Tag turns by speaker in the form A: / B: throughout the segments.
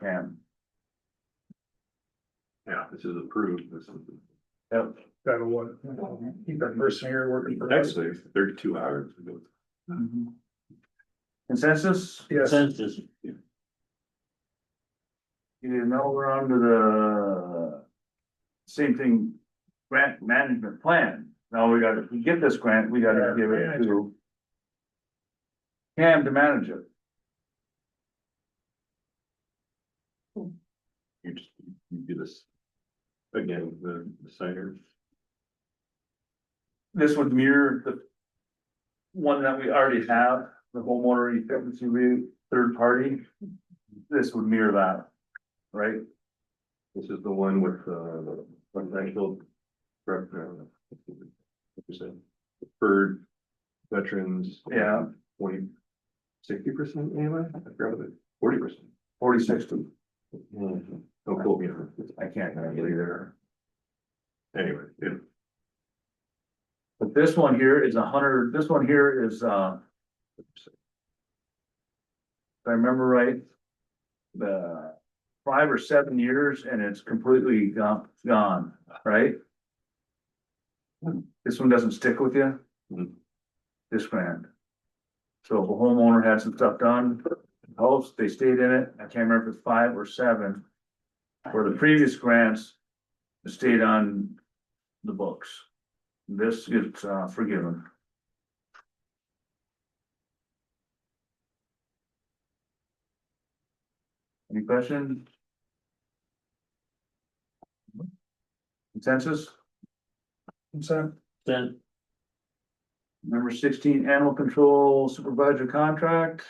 A: hand.
B: Yeah, this is approved, this is.
A: Yep. That one. Keep that person here working for. us.
B: Actually, it's thirty-two hours. ago.
A: Mhm. Consensus? Yes.
C: Census.
A: You know, we're on to the same thing, grant management plan. Now we gotta, if we get this grant, we gotta give it to Cam to manage it.
B: You just, you do this. Again, the the signer.
A: This would mirror the one that we already have, the homeowner efficiency rate, third party. This would mirror that, right?
B: This is the one with uh, the financial. rep- uh, what you said, Deferred veterans.
A: Yeah.
B: Twenty, sixty percent anyway, I forgot it, forty percent.
A: Forty-six to, Mm-hmm.
B: Don't quote me on it.
A: I can't remember either.
B: Anyway, it-
A: But this one here is a hundred, this one here is, uh, if I remember right, the five or seven years and it's completely gone, gone, right? This one doesn't stick with you?
B: Mhm.
A: This grant. So if a homeowner had some stuff done, house, they stayed in it, I can't remember if it's five or seven. For the previous grants, it stayed on the books. This gets uh, forgiven. Any questions? Consensus? Consent.
C: Then,
A: Number sixteen, animal control supervisor contract.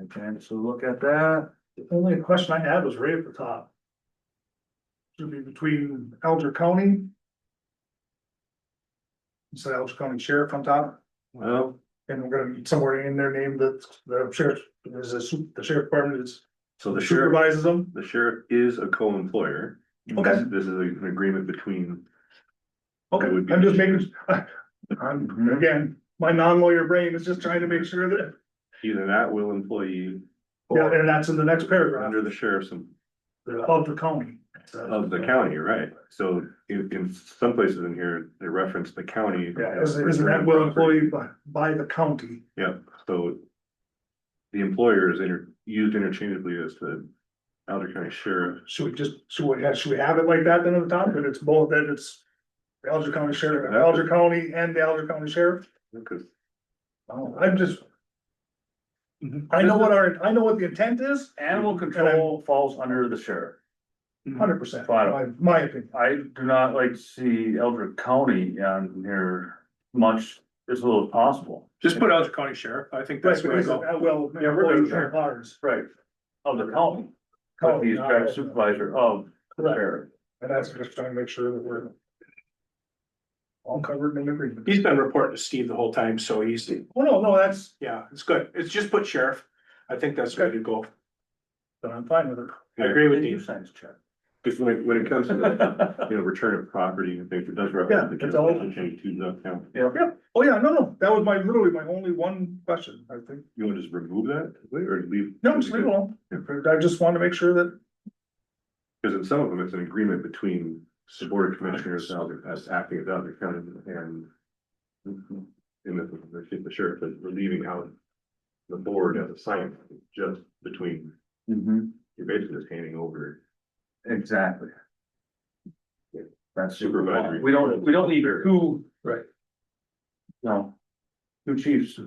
A: I can to look at that.
D: The only question I had was right at the top. Should be between Elder County. Instead of Elder County Sheriff on top,
B: well,
D: and we're gonna need somewhere in their name that the sheriff, there's a su- the sheriff department is
B: so the sheriff,
D: supervises them.
B: the sheriff is a co-employer. This- This is an agreement between,
D: Okay,
B: That would be- Mhm.
D: I'm just making, I'm, again, my non-lawyer brain is just trying to make sure that,
B: he's an at-will employee
D: yeah, and that's in the next paragraph,
B: under the sheriff's em-
D: the Elder County.
B: of the county, right? So in, in some places in here, they reference the county.
D: Yeah, is, is that well employed by, by the county?
B: Yeah, so the employer is inter, used interchangeably as the Alder County Sheriff.
D: Should we just, should we, have- should we have it like that then at the top, that it's both, that it's. the Alger County Sheriff, Alger County and the Alger County Sheriff,
B: Because
D: I'm just.
A: Mm-hmm.
D: I know what our, I know what the intent is,
A: Animal control falls under the sheriff. Mm-hmm.
D: hundred percent, my,
A: Fine.
D: my opinion,
A: I do not like to see Eldrick County on here much as little as possible.
E: Just put Elder County Sheriff, I think
D: that's
E: that's where
D: because,
E: I go.
D: uh, well,
A: Yeah, we're gonna-
D: employees are ours.
A: Right. Of the Oh, county, but he's
D: County,
A: direct
D: not-
A: supervisor of the
D: Correct.
A: sheriff.
D: And that's just trying to make sure that we're. All covered in agreement.
E: He's been reporting to Steve the whole time, so he's,
D: Oh, no, no, that's,
E: yeah, it's good. It's just put Sheriff. I think that's where you go.
D: then I'm fine with it.
E: I agree with
A: Did you
E: you.
A: sign his check?
B: because when it, when it comes to, the, you know, return of property and things, it does
D: Yeah,
B: reference the
D: it's all-
B: county. Change to the county.
D: Oh, yeah, no, no, that was my, literally my only one question, I think.
B: You want to just remove that or leave?
D: No, just leave it alone. I just wanted to make sure that
B: Because in some of them, it's an agreement between the board of commissioners, Alder- as acting as Alder County and. In the, the sheriff, but we're leaving out the board as a sign, just between,
A: Mm-hmm.
B: you're basically just handing over.
A: Exactly. That's
B: Supervisory.
A: We don't, we don't need two.
D: Right.
A: No. Two chiefs,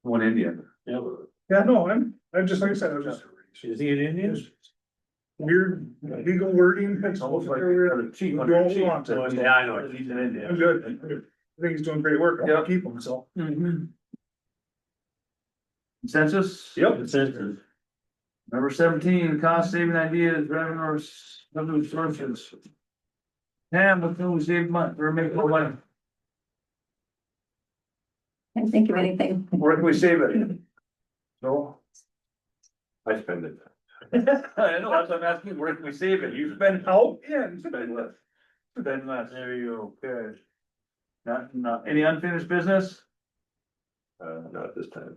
A: one Indian.
C: yeah,
D: Yeah, no, I'm, I'm just, like I said, I'm just
C: is he an Indian?
D: weird legal wording.
A: It's almost like
D: I'm
A: a chief
D: You
A: under a
D: don't
A: chief.
D: want to.
A: Yeah, I know. He's an Indian.
D: good. I think he's doing great work. I'll
A: Yeah.
D: keep him, so.
A: Mm-hmm. Consensus?
C: Census.
A: Number seventeen, cost saving ideas, revenue, revenue sources. Pam, what can we save money, or make more money,
F: Can't think of anything.
A: where can we save it? So.
B: I spend it.
A: I know, that's what I'm asking, where can we save it, you spend
D: Oh, yeah.
A: Spend less. Spend less, there you go, good. Not, not, any unfinished business,
B: Uh, not this time.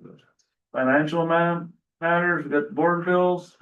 A: financial amount, matters, we got board bills.